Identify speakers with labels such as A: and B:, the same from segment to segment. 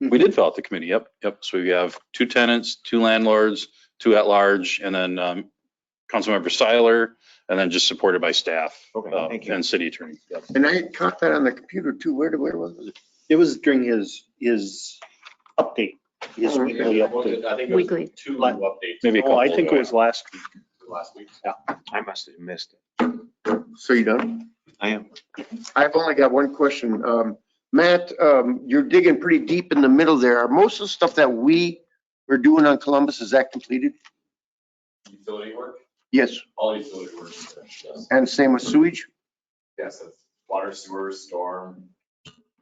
A: Hmm.
B: We did fill out the committee, yep, yep. So we have two tenants, two landlords, two at-large, and then um, Councilmember Seiler, and then just supported by staff.
A: Okay,
B: uh,
A: thank you.
B: And city attorney. Yep.
C: And I caught that on the computer too. Where, did- where was it?
D: It was during his, his update, his
C: Oh,
D: weekly update.
E: I think it was
F: Weekly.
E: two updates.
B: Maybe a
D: Oh,
B: couple.
D: I think it was last week.
E: Last week.
A: I must have missed it.
C: So you done?
A: I am.
C: I've only got one question. Um, Matt, um, you're digging pretty deep in the middle there. Are most of the stuff that we are doing on Columbus, is that completed?
E: Utility work,
C: Yes,
E: all utility work, is finished, yes.
C: and same with sewage?
E: Yes, it's water, sewer, storm.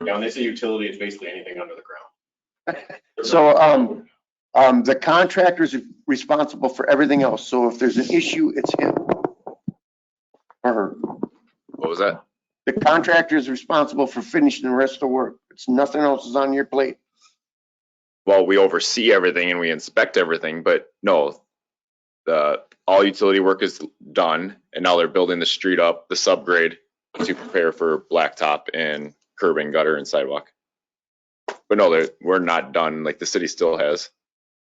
E: Yeah, when they say utility, it's basically anything under the ground.
C: So, um, um, the contractor's responsible for everything else, so if there's an issue, it's him. Or her.
G: What was that?
C: the contractor is responsible for finishing the rest of the work. It's nothing else is on your plate.
G: Well, we oversee everything and we inspect everything, but no. The, all utility work is done and now they're building the street up, the subgrade to prepare for blacktop and curb and gutter and sidewalk. But no, they're, we're not done, like the city still has,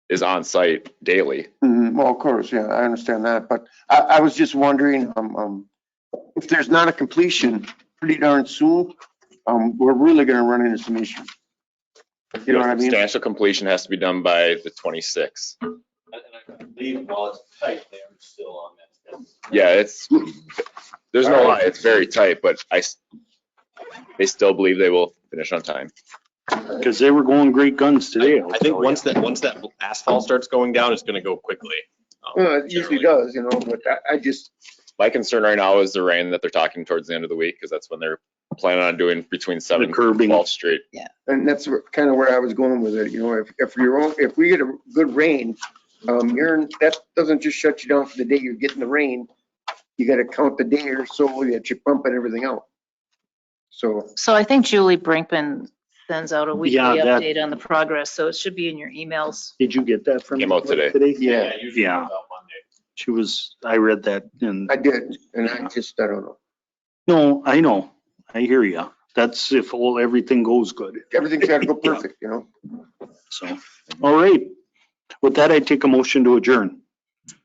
G: is on site daily.
C: Mhm, Well, of course, yeah, I understand that, but I, I was just wondering, um, um, if there's not a completion pretty darn soon, um, we're really gonna run into some issues. You know what I mean?
G: Substantial completion has to be done by the twenty-sixth.
E: And and I believe while it's tight, they're still on that.
G: Yeah, it's, there's no lie, it's very tight, but I, s- they still believe they will finish on time.
D: Because they were going great guns today.
E: I think once that, once that asphalt starts going down, it's gonna go quickly. um,
C: Well, it Uh, usually
E: generally.
C: does, you know, but I, I just,
G: My concern right now is the rain that they're talking towards the end of the week, because that's when they're planning on doing between seven and
D: curbing.
G: twelve street.
C: and that's kind of where I was going with it, you know, if, if you're, on- if we get a good rain, um, you're, that doesn't just shut you down for the day you're getting the rain. You gotta count the day or so that you're pumping everything out. So,
F: So I think Julie Brinkman sends out a weekly
D: Yeah, that-
F: update on the progress, so it should be in your emails.
D: Did you get that from?
G: Came out today.
C: yeah,
E: Usually
D: Yeah.
E: about Monday.
D: She was, I read that and,
C: I did, and I just, I don't know,
D: no, I know. I hear you. That's if all, everything goes good.
C: everything's gotta go perfect, you know?
D: So, all right. With that, I take a motion to adjourn.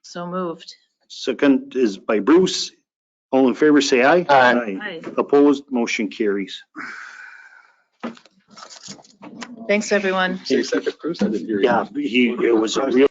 F: So moved.
D: Second is by Bruce. All in favor, say aye.
C: Aye.
D: Opposed, motion carries.
F: Thanks, everyone.
G: Cruise, I didn't hear
D: Yeah, he, it was a real